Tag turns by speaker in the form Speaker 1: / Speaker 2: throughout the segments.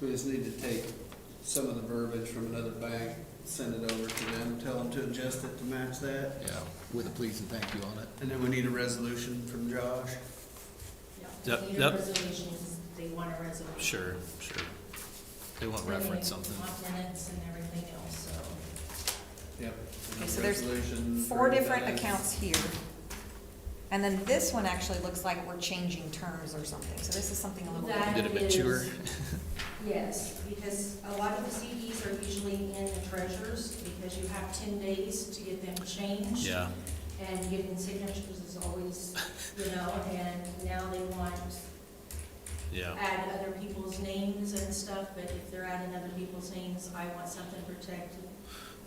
Speaker 1: We just need to take some of the verbiage from another bank, send it over to them, tell them to adjust it to match that.
Speaker 2: Yeah, with a please and thank you on it.
Speaker 1: And then we need a resolution from Josh.
Speaker 3: Yep,
Speaker 4: They need a
Speaker 3: yep.
Speaker 4: resolution, they want a resolution.
Speaker 3: Sure, sure. They won't reference something.
Speaker 4: They want minutes and everything else, so.
Speaker 1: Yep.
Speaker 5: Okay, so there's Four different accounts here. And then this one actually looks like we're changing terms or something, so this is something a little
Speaker 4: That-
Speaker 5: bit.
Speaker 3: Did it mature?
Speaker 4: Yes, because a lot of the CDs are usually in the treasures because you have ten days to get them changed.
Speaker 3: Yeah,
Speaker 4: And getting signatures is always, you know, and now they want
Speaker 3: yeah,
Speaker 4: add other people's names and stuff, but if they're adding other people's names, I want something protected,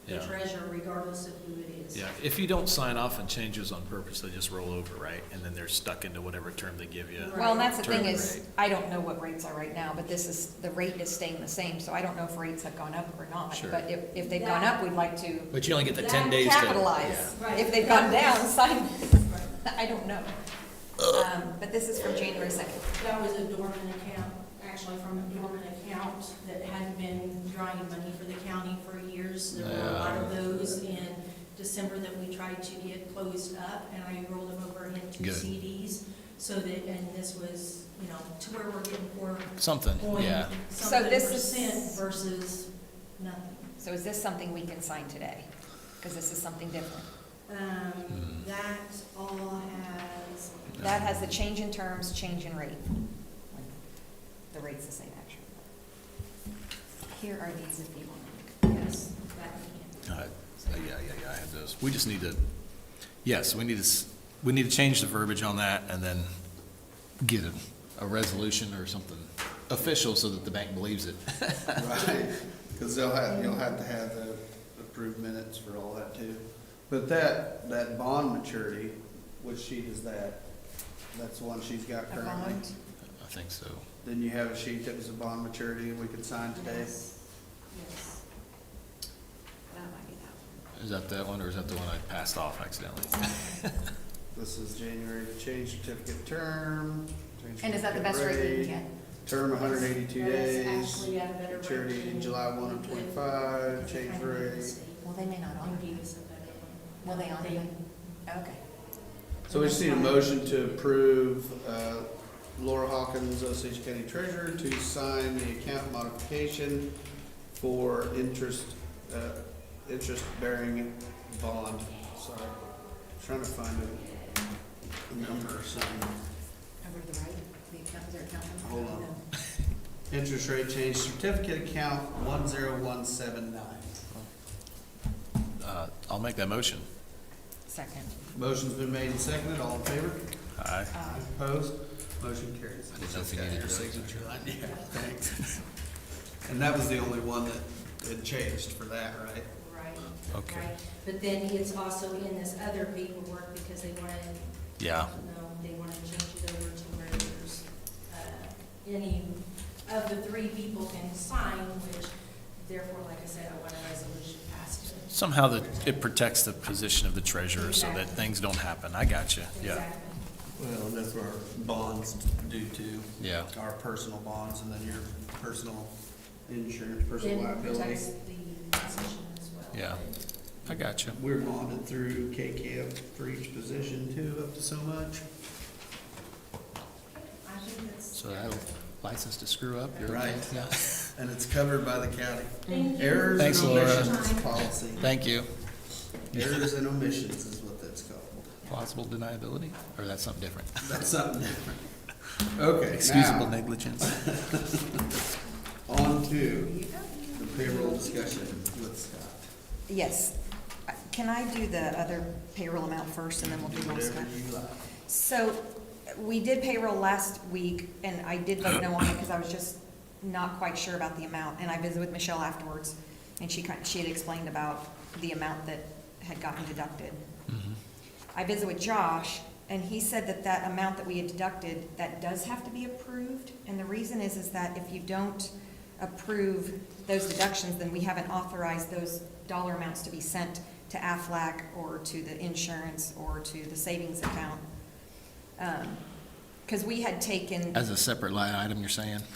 Speaker 4: the
Speaker 3: yeah.
Speaker 4: treasure regardless of who it is.
Speaker 3: Yeah, if you don't sign off on changes on purpose, they just roll over, right? And then they're stuck into whatever term they give you.
Speaker 5: Well, and that's the thing
Speaker 3: Term
Speaker 5: is,
Speaker 3: rate.
Speaker 5: I don't know what rates are right now, but this is, the rate is staying the same, so I don't know if rates have gone up or not.
Speaker 3: Sure.
Speaker 5: But if, if they've gone up, we'd like to
Speaker 3: But you only get the
Speaker 4: That
Speaker 3: ten days to.
Speaker 5: capitalize.
Speaker 4: yeah.
Speaker 5: If they've gone down, sign,
Speaker 4: Right.
Speaker 5: I don't know. Um, But this is from January second.
Speaker 4: That was a dormant account, actually from a dormant account that hadn't been drawing money for the county for years. There were a lot of those in December that we tried to get closed up, and I rolled them over into
Speaker 3: Good.
Speaker 4: CDs. So that, and this was, you know, to where we're getting four
Speaker 3: Something,
Speaker 4: point
Speaker 3: yeah.
Speaker 4: something
Speaker 5: this is-
Speaker 4: percent versus nothing.
Speaker 5: So is this something we can sign today? Because this is something different.
Speaker 4: Um,
Speaker 3: Hmm.
Speaker 4: that all has,
Speaker 5: That has the change in terms, change in rate. The rate's the same, actually. Here are these if you want.
Speaker 4: yes, that we
Speaker 3: Uh, Yeah, yeah, yeah, I have those. We just need to, yes, we need to, s- we need to change the verbiage on that and then get a, a resolution or something official so that the bank believes it.
Speaker 1: Right, because they'll have, you'll have to have the approved minutes for all that too. But that, that bond maturity, which sheet is that? That's the one she's got
Speaker 5: A
Speaker 1: currently.
Speaker 5: bond?
Speaker 3: I think so.
Speaker 1: Then you have a sheet that was a bond maturity and we could sign
Speaker 4: can.
Speaker 1: today.
Speaker 4: Yes, Yes.
Speaker 5: That might be that
Speaker 3: Is that that one or is that the one I passed off accidentally?
Speaker 1: This is January to change certificate term. change
Speaker 5: one. And is that the
Speaker 1: certificate
Speaker 5: best rate we
Speaker 1: rate,
Speaker 5: can
Speaker 1: Term hundred and eighty-two
Speaker 4: That's
Speaker 1: days,
Speaker 4: actually at a better
Speaker 1: maturity
Speaker 4: rate than
Speaker 1: July one of
Speaker 4: the-
Speaker 1: twenty-five, change
Speaker 4: the
Speaker 1: rate.
Speaker 4: state.
Speaker 5: get? Well, they may not honor
Speaker 4: They
Speaker 5: it.
Speaker 4: gave us a better one.
Speaker 5: Will they honor
Speaker 4: They-
Speaker 5: it? Okay.
Speaker 1: So we just need a motion to approve uh, Laura Hawkins, Osage County Treasurer, to sign the account modification for interest, uh, interest-bearing bond. Sorry, trying to find a- a number or something.
Speaker 5: Over to the right, the account, is there account?
Speaker 1: Hold on. Interest rate change certificate account one zero one seven nine.
Speaker 3: Uh, I'll make that motion.
Speaker 5: Second.
Speaker 1: Motion's been made and seconded, all in favor?
Speaker 3: Aye.
Speaker 5: Uh,
Speaker 1: Opposed? Motion carries.
Speaker 3: I didn't know if you needed
Speaker 1: Your
Speaker 3: to-
Speaker 1: signature line, yeah, thanks. And that was the only one that had changed for that, right?
Speaker 4: Right.
Speaker 3: Okay.
Speaker 4: right. But then it's also in this other paperwork because they wanted,
Speaker 3: Yeah,
Speaker 4: no, they wanted to change it over to where there's, uh, any of the three people can sign, which therefore, like I said, I want a resolution passed. to-
Speaker 3: somehow that it protects the position of the treasurer so that things don't happen. I got you, yeah.
Speaker 4: Exactly.
Speaker 1: Well, and that's what our bonds do too.
Speaker 3: Yeah.
Speaker 1: Our personal bonds and then your personal insurance, personal
Speaker 4: Then
Speaker 1: liability.
Speaker 4: protects the position as well.
Speaker 3: Yeah. I got you.
Speaker 1: We're bonded through KCAM for each position too, up to so much.
Speaker 4: I think that's.
Speaker 3: So that'll license to screw up, you're
Speaker 1: Right.
Speaker 3: right, yeah.
Speaker 1: And it's covered by the county.
Speaker 4: Thank you.
Speaker 1: Errors
Speaker 3: Thanks,
Speaker 1: and
Speaker 3: Laura.
Speaker 1: omissions policy.
Speaker 3: Thank you.
Speaker 1: Errors and omissions is what that's called.
Speaker 3: Plausible deniability, or that's something different?
Speaker 1: That's something different. Okay,
Speaker 3: Excusable
Speaker 1: now,
Speaker 3: negligence.
Speaker 1: on to the payroll discussion with Scott.
Speaker 5: Yes. Uh, Can I do the other payroll amount first and then we'll do
Speaker 1: Do
Speaker 5: one
Speaker 1: whatever
Speaker 5: step?
Speaker 1: you like.
Speaker 5: So, we did payroll last week, and I did vote no on it because I was just not quite sure about the amount. And I visited with Michelle afterwards, and she, kind- she had explained about the amount that had gotten deducted. I visited with Josh, and he said that that amount that we had deducted, that does have to be approved. And the reason is, is that if you don't approve those deductions, then we haven't authorized those dollar amounts to be sent to Aflac or to the insurance or to the savings account. Because we had taken.
Speaker 3: As a separate line item, you're saying?